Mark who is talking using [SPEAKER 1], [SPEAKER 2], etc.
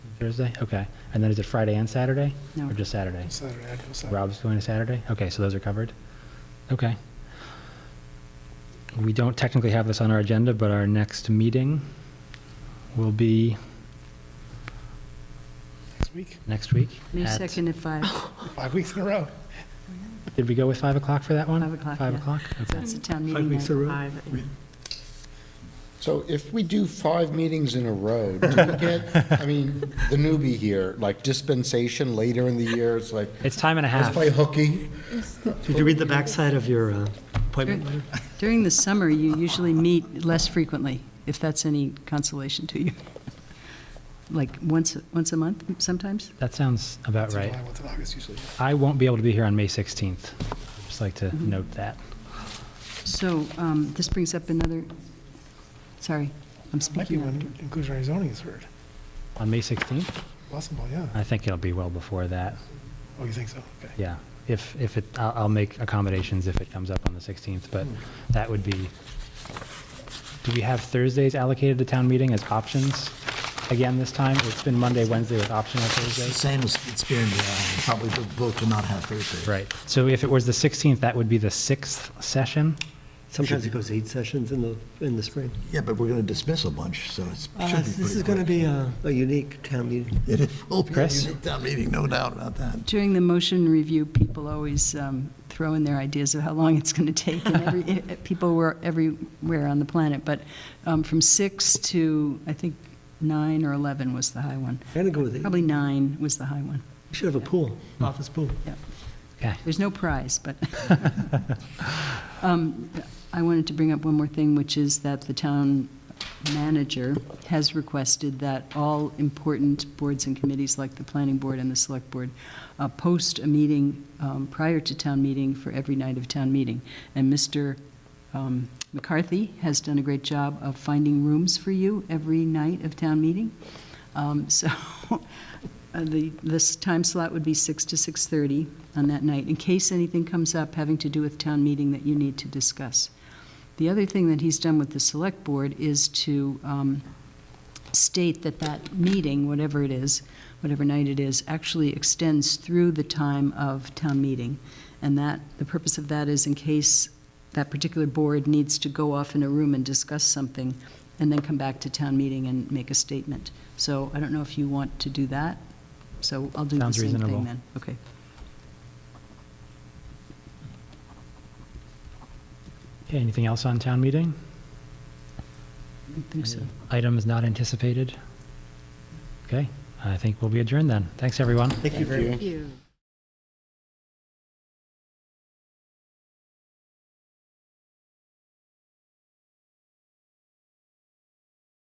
[SPEAKER 1] Thursday? Okay. And then is it Friday and Saturday?
[SPEAKER 2] No.
[SPEAKER 1] Or just Saturday?
[SPEAKER 3] Saturday, I'd go Saturday.
[SPEAKER 1] Rob's going to Saturday? Okay, so those are covered? Okay. We don't technically have this on our agenda, but our next meeting will be
[SPEAKER 3] Next week,
[SPEAKER 1] next week.
[SPEAKER 2] May
[SPEAKER 1] at-
[SPEAKER 2] 2nd at 5,
[SPEAKER 3] five weeks in a row.
[SPEAKER 1] Did we go with 5 o'clock for that one?
[SPEAKER 2] 5 o'clock.
[SPEAKER 1] Five
[SPEAKER 2] yeah.
[SPEAKER 1] o'clock?
[SPEAKER 2] So
[SPEAKER 1] Okay.
[SPEAKER 2] That's the town
[SPEAKER 1] Five
[SPEAKER 2] meeting
[SPEAKER 1] weeks
[SPEAKER 2] night.
[SPEAKER 1] in a row.
[SPEAKER 4] So if we do five meetings in a row, do we get, I mean, the newbie here, like dispensation later in the year, it's like,
[SPEAKER 1] It's time and a
[SPEAKER 4] let's
[SPEAKER 1] half.
[SPEAKER 4] play hooky.
[SPEAKER 5] Did you read the backside of your uh, appointment letter?
[SPEAKER 2] During the summer, you usually meet less frequently, if that's any consolation to you. Like, once, once a month sometimes?
[SPEAKER 1] That sounds about
[SPEAKER 3] It's
[SPEAKER 1] right.
[SPEAKER 3] July, what's in August usually.
[SPEAKER 1] I won't be able to be here on May 16th. Just like
[SPEAKER 2] Mm-hmm.
[SPEAKER 1] to note that.
[SPEAKER 2] So um, this brings up another, sorry, I'm
[SPEAKER 3] Might be
[SPEAKER 2] speaking
[SPEAKER 3] when
[SPEAKER 2] after.
[SPEAKER 3] inclusionary zoning is heard.
[SPEAKER 1] On May 16th?
[SPEAKER 3] Possible, yeah.
[SPEAKER 1] I think it'll be well before that.
[SPEAKER 3] Oh, you think so? Okay.
[SPEAKER 1] Yeah, if, if it, I'll, I'll make accommodations if it comes up on the 16th, but that would be, do we have Thursdays allocated to town meeting as options again this time? It's been Monday, Wednesday with optional
[SPEAKER 5] It's the
[SPEAKER 1] Thursday.
[SPEAKER 5] Same as it's been, uh, probably the vote to not have Thursday.
[SPEAKER 1] Right, so if it was the 16th, that would be the sixth session?
[SPEAKER 6] Sometimes it goes eight sessions in the, in the spring.
[SPEAKER 5] Yeah, but we're going to dismiss a bunch, so it's,
[SPEAKER 6] Uh,
[SPEAKER 5] should be
[SPEAKER 6] This is
[SPEAKER 5] pretty
[SPEAKER 6] going to
[SPEAKER 5] quick.
[SPEAKER 6] be a a unique town meeting.
[SPEAKER 5] It is- will be a
[SPEAKER 1] Chris?
[SPEAKER 5] unique town meeting, no doubt about that.
[SPEAKER 2] During the motion review, people always um, throw in their ideas of how long it's going to take, and every, eh, people were everywhere on the planet, but um, from 6 to, I think, 9 or 11 was the high one.
[SPEAKER 6] I'm going to go with eight.
[SPEAKER 2] Probably 9 was the high one.
[SPEAKER 6] We should have a pool, office pool.
[SPEAKER 1] Okay,
[SPEAKER 2] There's no prize, but. Um, I wanted to bring up one more thing, which is that the town manager has requested that all important boards and committees, like the planning board and the select board, uh, post a meeting um, prior to town meeting for every night of town meeting. And Mr. um, McCarthy has done a great job of finding rooms for you every night of town meeting. Um, So uh, the, this time slot would be 6 to 6:30 on that night, in case anything comes up having to do with town meeting that you need to discuss. The other thing that he's done with the Select Board is to um, state that that meeting, whatever it is, whatever night it is, actually extends through the time of town meeting. And that, the purpose of that is in case that particular board needs to go off in a room and discuss something, and then come back to town meeting and make a statement. So I don't know if you want to do that, so I'll do the
[SPEAKER 1] Sounds
[SPEAKER 2] same
[SPEAKER 1] reasonable.
[SPEAKER 2] thing then. Okay.
[SPEAKER 1] Okay, anything else on town meeting?
[SPEAKER 2] I think so.
[SPEAKER 1] Items not anticipated? Okay, I think we'll be adjourned then. Thanks, everyone.
[SPEAKER 4] Thank you very much.
[SPEAKER 2] you.